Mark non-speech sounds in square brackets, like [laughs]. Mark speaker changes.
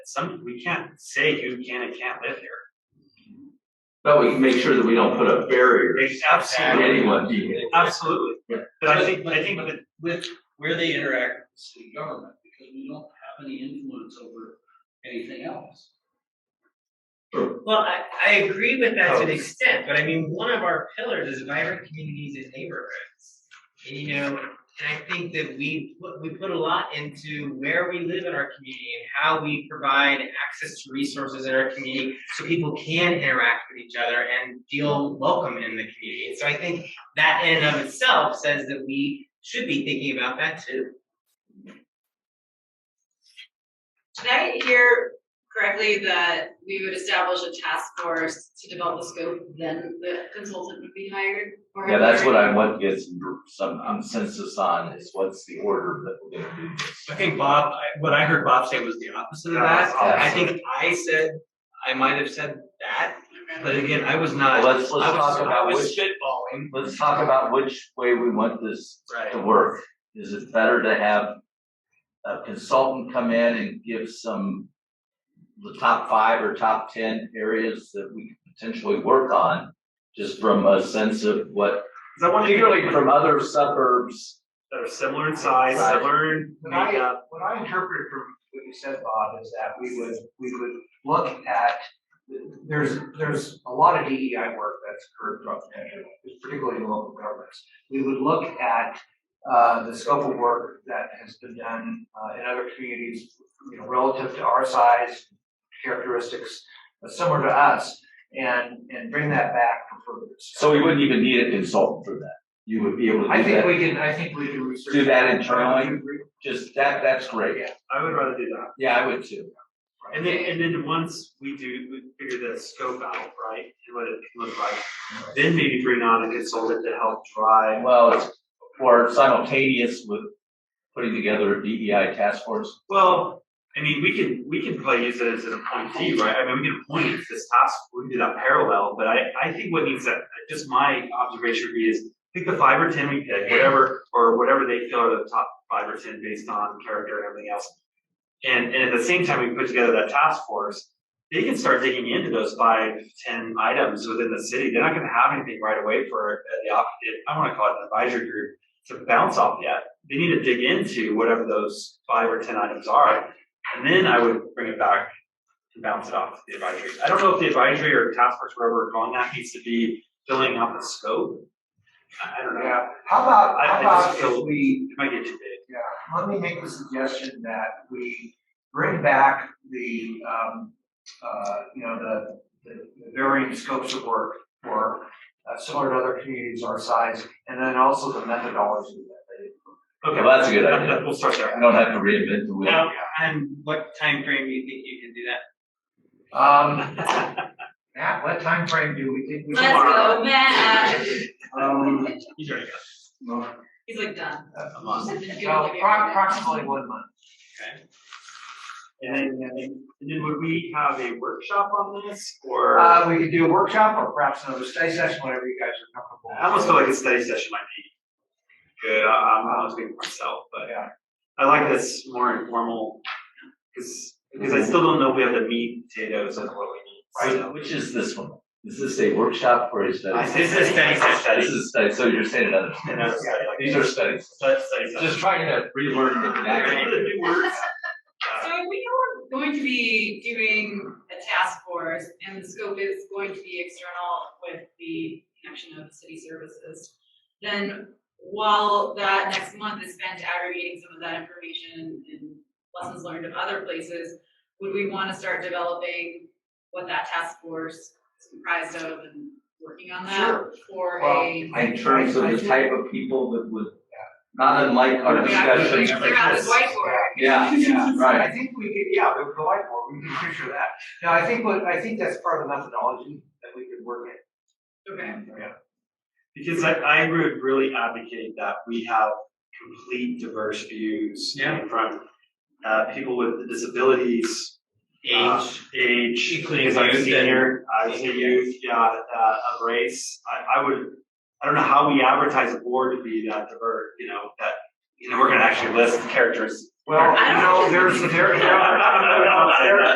Speaker 1: Some, we can't say who can and can't live here.
Speaker 2: But we can make sure that we don't put up barriers
Speaker 1: It's
Speaker 2: to
Speaker 1: Absolutely,
Speaker 2: anyone being in.
Speaker 1: absolutely.
Speaker 2: Yeah.
Speaker 1: But I think, I think that,
Speaker 3: with where they interact with city government, because we don't have any influence over anything else.
Speaker 4: Well, I, I agree with that to an
Speaker 2: Oh.
Speaker 4: extent, but I mean, one of our pillars is vibrant communities and neighborhoods. And you know, and I think that we put, we put a lot into where we live in our community and how we provide access to resources in our community so people can interact with each other and feel welcome in the community. And so I think that in and of itself says that we should be thinking about that too.
Speaker 5: Did I hear correctly that we would establish a task force to develop the scope, then the consultant would be hired? Or
Speaker 2: Yeah, that's
Speaker 5: have
Speaker 2: what
Speaker 5: there-
Speaker 2: I want to get some, some consensus on is what's the order that we're gonna do this.
Speaker 3: I think Bob, I- what I heard Bob say was the opposite of that. I think I said, I might have said that, but again, I was
Speaker 6: Uh,
Speaker 3: not.
Speaker 2: Let's, let's
Speaker 3: I was-
Speaker 2: talk
Speaker 3: I
Speaker 2: about
Speaker 3: was
Speaker 2: which,
Speaker 3: spitballing.
Speaker 2: let's talk about which way we want this
Speaker 3: Right.
Speaker 2: to work. Is it better to have a consultant come in and give some, the top five or top ten areas that we could potentially work on? Just from a sense of what,
Speaker 1: 'cause I want to
Speaker 2: particularly
Speaker 1: hear
Speaker 2: from other suburbs,
Speaker 1: that are similar in size,
Speaker 2: Right.
Speaker 1: similar in
Speaker 6: When I-
Speaker 1: makeup.
Speaker 6: what I interpreted from what you said, Bob, is that we would, we would look at, there's, there's a lot of DEI work that's occurred throughout the country, particularly in local governments. We would look at, uh, the scope of work that has been done, uh, in other communities, you know, relative to our size, characteristics uh, similar to us, and, and bring that back for further discussion.
Speaker 2: so we wouldn't even need a consultant for that. You would be able to do that.
Speaker 6: I think we can, I think we can research.
Speaker 2: Do that
Speaker 6: I
Speaker 2: internally?
Speaker 6: would agree.
Speaker 2: Just that, that's great.
Speaker 1: I would rather do that.
Speaker 2: Yeah, I would too.
Speaker 1: And then, and then once we do, we figure the scope out, right, and what it can look like, then maybe bring on a consultant to help drive.
Speaker 2: Well, it's, or simultaneous with putting together a DEI task force.
Speaker 1: Well, I mean, we can, we can probably use it as an appointee, right? I mean, we can appoint it to this task, we can do that parallel, but I, I think what needs that, just my observation would be is pick the five or ten we pick, whatever, or whatever they feel are the top five or ten based on character and everything else. And, and at the same time, we put together that task force, they can start digging into those five, ten items within the city. They're not gonna have anything right away for uh, the, op- I wanna call it an advisory group to bounce off yet they need to dig into whatever those five or ten items are, and then I would bring it back and bounce it off to the advisory. I don't know if the advisory or task force, wherever we're calling that, needs to be filling out the scope. I I don't know,
Speaker 6: Yeah, how about,
Speaker 1: I- I
Speaker 6: how
Speaker 1: just
Speaker 6: about
Speaker 1: feel-
Speaker 6: if we,
Speaker 1: it might get too big.
Speaker 6: yeah, let me make the suggestion that we bring back the, um, uh, you know, the, the the varying scopes of work for uh, similar to other communities our size, and then also the methodology that
Speaker 2: Okay, well, that's a good
Speaker 1: That-
Speaker 2: idea.
Speaker 1: that- We'll start there.
Speaker 2: I don't have to reinvent the wheel.
Speaker 4: Now, and what time frame do you think you can do that?
Speaker 6: they. Um, Matt, what time frame do we think we?
Speaker 5: Let's go, Matt.
Speaker 6: Um,
Speaker 1: He's already got
Speaker 5: He's like done.
Speaker 1: a month.
Speaker 6: so pro- approximately one month.
Speaker 1: And then, and then- and then would we have a workshop on this, or? I
Speaker 6: Uh, we could do a workshop or perhaps another study session, whatever you guys are comfortable. with.
Speaker 1: almost feel like a study session might be good, I- I'm, I was being myself, but.
Speaker 6: Yeah.
Speaker 1: I like this more informal, because, because I still don't know if we have the meat and potatoes of what we need,
Speaker 2: Right,
Speaker 1: so.
Speaker 2: which is this one? Is this a workshop or a study?
Speaker 1: I said study, I said
Speaker 2: This is a study, so you're saying another.
Speaker 1: And that's study, like-
Speaker 2: These are studies.
Speaker 1: Study, study, study.
Speaker 2: Just trying to relearn the
Speaker 1: Any
Speaker 2: connection.
Speaker 1: other new words?
Speaker 5: So if we are going to be doing a task force and the scope is going to be external with the connection of city services, then while that next month is spent aggregating some of that information and lessons learned of other places, would we want to start developing what that task force is comprised of and working on that for a?
Speaker 2: In terms of the type of people that would, not unlike our
Speaker 5: We have to
Speaker 2: discussion.
Speaker 5: Clear out this whiteboard.
Speaker 2: Yeah,
Speaker 6: Yeah,
Speaker 2: right.
Speaker 6: I think we could, yeah, we could go whiteboard. we can picture that. No, I think what, I think that's part of the methodology that we could work in.
Speaker 5: [laughs] Okay.
Speaker 1: Because I, I would really advocate that we have complete diverse views.
Speaker 4: Yeah.
Speaker 1: From, uh, people with disabilities. uh, Age.
Speaker 4: Including
Speaker 1: things like
Speaker 4: youth and-
Speaker 1: Senior, I would say youth, yeah, uh, of race, I, I would, I don't know how we advertise a board to be that diverse, you know, that, you know, we're gonna actually list characteristics. [laughs]
Speaker 6: Well, you know, [laughs] there's, there, there, there- there-